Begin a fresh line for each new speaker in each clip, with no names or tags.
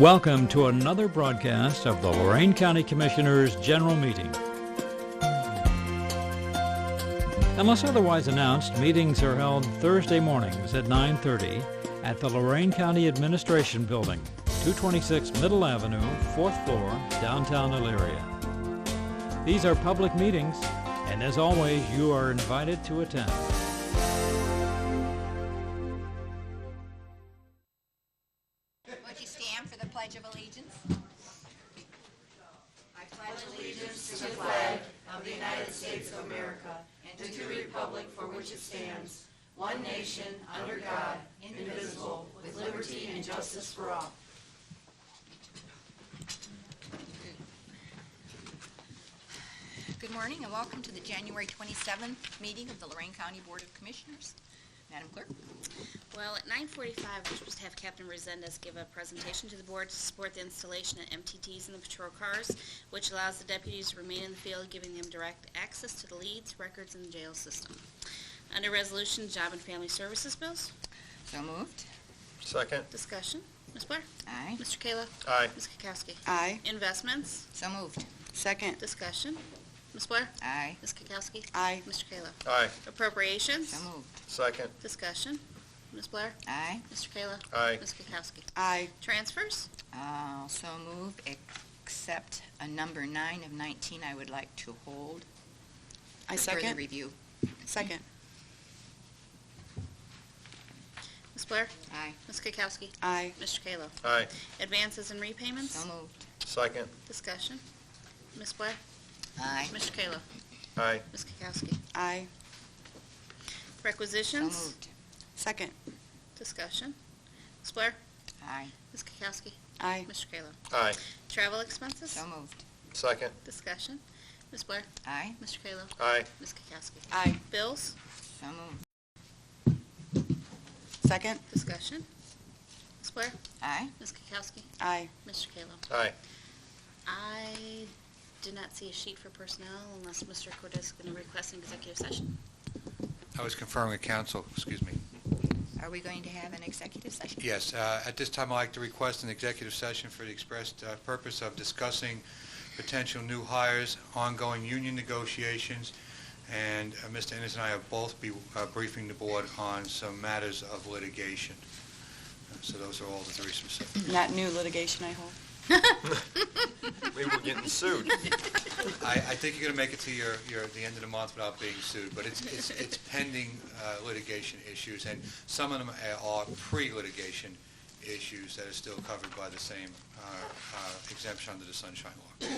Welcome to another broadcast of the Lorain County Commissioners' General Meeting. Unless otherwise announced, meetings are held Thursday mornings at 9:30 at the Lorain County Administration Building, 226 Middle Avenue, 4th floor, downtown Elyria. These are public meetings, and as always, you are invited to attend.
Would you stand for the Pledge of Allegiance? I pledge allegiance to the flag of the United States of America and to the republic for which it stands, one nation, under God, indivisible, with liberty and justice for all. Good morning and welcome to the January 27th meeting of the Lorraine County Board of Commissioners. Madam Clerk?
Well, at 9:45, we're supposed to have Captain Resendez give a presentation to the board to support the installation of MTTs in the patrol cars, which allows the deputies to remain in the field, giving them direct access to the leads, records, and the jail system. Under Resolution, Job and Family Services Bills,
So moved.
Second,
discussion. Ms. Blair?
Aye.
Mr. Kayla?
aye.
Ms. Kukowski?
Aye.
Investments,
So moved.
Second.
discussion. Ms. Blair?
Aye.
Ms. Kukowski?
Aye.
Mr. Kayla?
Aye.
Appropriations,
So moved.
Second,
discussion. Ms. Blair?
Aye.
Mr. Kayla?
aye.
Ms. Kukowski?
Aye.
Transfers,
Uh, So moved, except a number nine of 19 I would like to hold.
I
For further
second.
review.
Second.
Ms. Blair?
Aye.
Ms. Kukowski?
Aye.
Mr. Kayla?
Aye.
Advances and repayments?
So moved.
Second,
Discussion. Ms. Blair?
Aye.
Mr. Kayla?
aye.
Ms. Kukowski?
Aye.
So
Requisitions?
moved.
Second.
Discussion. Ms. Blair?
Aye.
Ms. Kukowski?
Aye.
Mr. Kayla?
Aye.
Travel expenses?
So moved.
Second,
Discussion. Ms. Blair?
Aye.
Mr. Kayla?
aye.
Ms. Kukowski?
Aye.
Bills?
So moved.
Second.
Discussion. Ms. Blair?
Aye.
Ms. Kukowski?
Aye.
Mr. Kayla?
Aye.
I did not see a sheet for personnel unless Mr. Cordez is going to request an executive session.
I was conferring with council, excuse me.
Are we going to have an executive session?
Yes, uh, at this time, I'd like to request an executive session for the express uh, purpose of discussing potential new hires, ongoing union negotiations, and uh, Mr. Ennis and I have both be uh, briefing the board on some matters of litigation. Uh, So those are all the three specific.
Not new litigation, I hope.
We were getting sued.
I I think you're going to make it to your, your, the end of the month without being sued, but it's, it's it's pending uh, litigation issues, and some of them uh, are pre-litigation issues that are still covered by the same uh, uh, exemption under the Sunshine Law.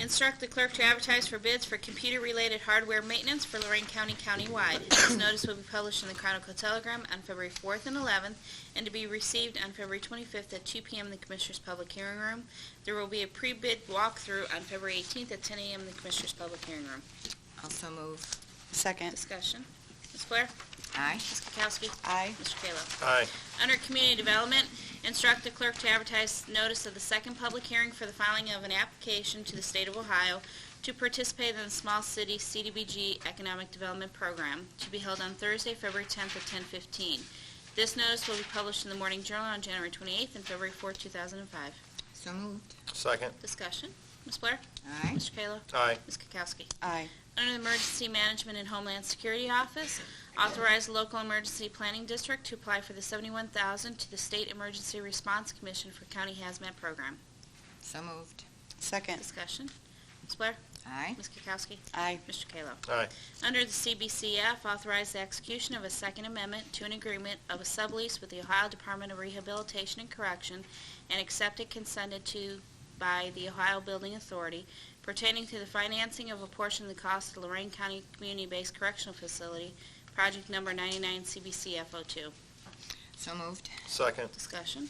Instruct the clerk to advertise for bids for computer-related hardware maintenance for Lorraine County countywide. This notice will be published in the Chronicle Telegram on February 4th and 11th, and to be received on February 25th at 2 p.m. in the Commissioners' Public Hearing Room. There will be a pre-bid walkthrough on February 18th at 10 a.m. in the Commissioners' Public Hearing Room.
Also moved.
Second.
Discussion. Ms. Blair?
Aye.
Ms. Kukowski?
Aye.
Mr. Kayla?
Aye.
Under Community Development, instruct the clerk to advertise notice of the second public hearing for the filing of an application to the state of Ohio to participate in the Small City CDBG Economic Development Program to be held on Thursday, February 10th at 10:15. This notice will be published in the Morning Journal on January 28th and February 4th, 2005.
So moved.
Second,
Discussion. Ms. Blair?
Aye.
Mr. Kayla?
aye.
Ms. Kukowski?
Aye.
Under the Emergency Management and Homeland Security Office, authorize the local emergency planning district to apply for the $71,000 to the State Emergency Response Commission for County Hazmat Program.
So moved.
Second.
Discussion. Ms. Blair?
Aye.
Ms. Kukowski?
Aye.
Mr. Kayla?
Aye.
Under the CBCF, authorize the execution of a second amendment to an agreement of a sublease with the Ohio Department of Rehabilitation and Correction and accepted consented to by the Ohio Building Authority pertaining to the financing of a portion of the cost of Lorraine County Community-Based Correctional Facility, project number 99 CBCF02.
So moved.
Second,
Discussion.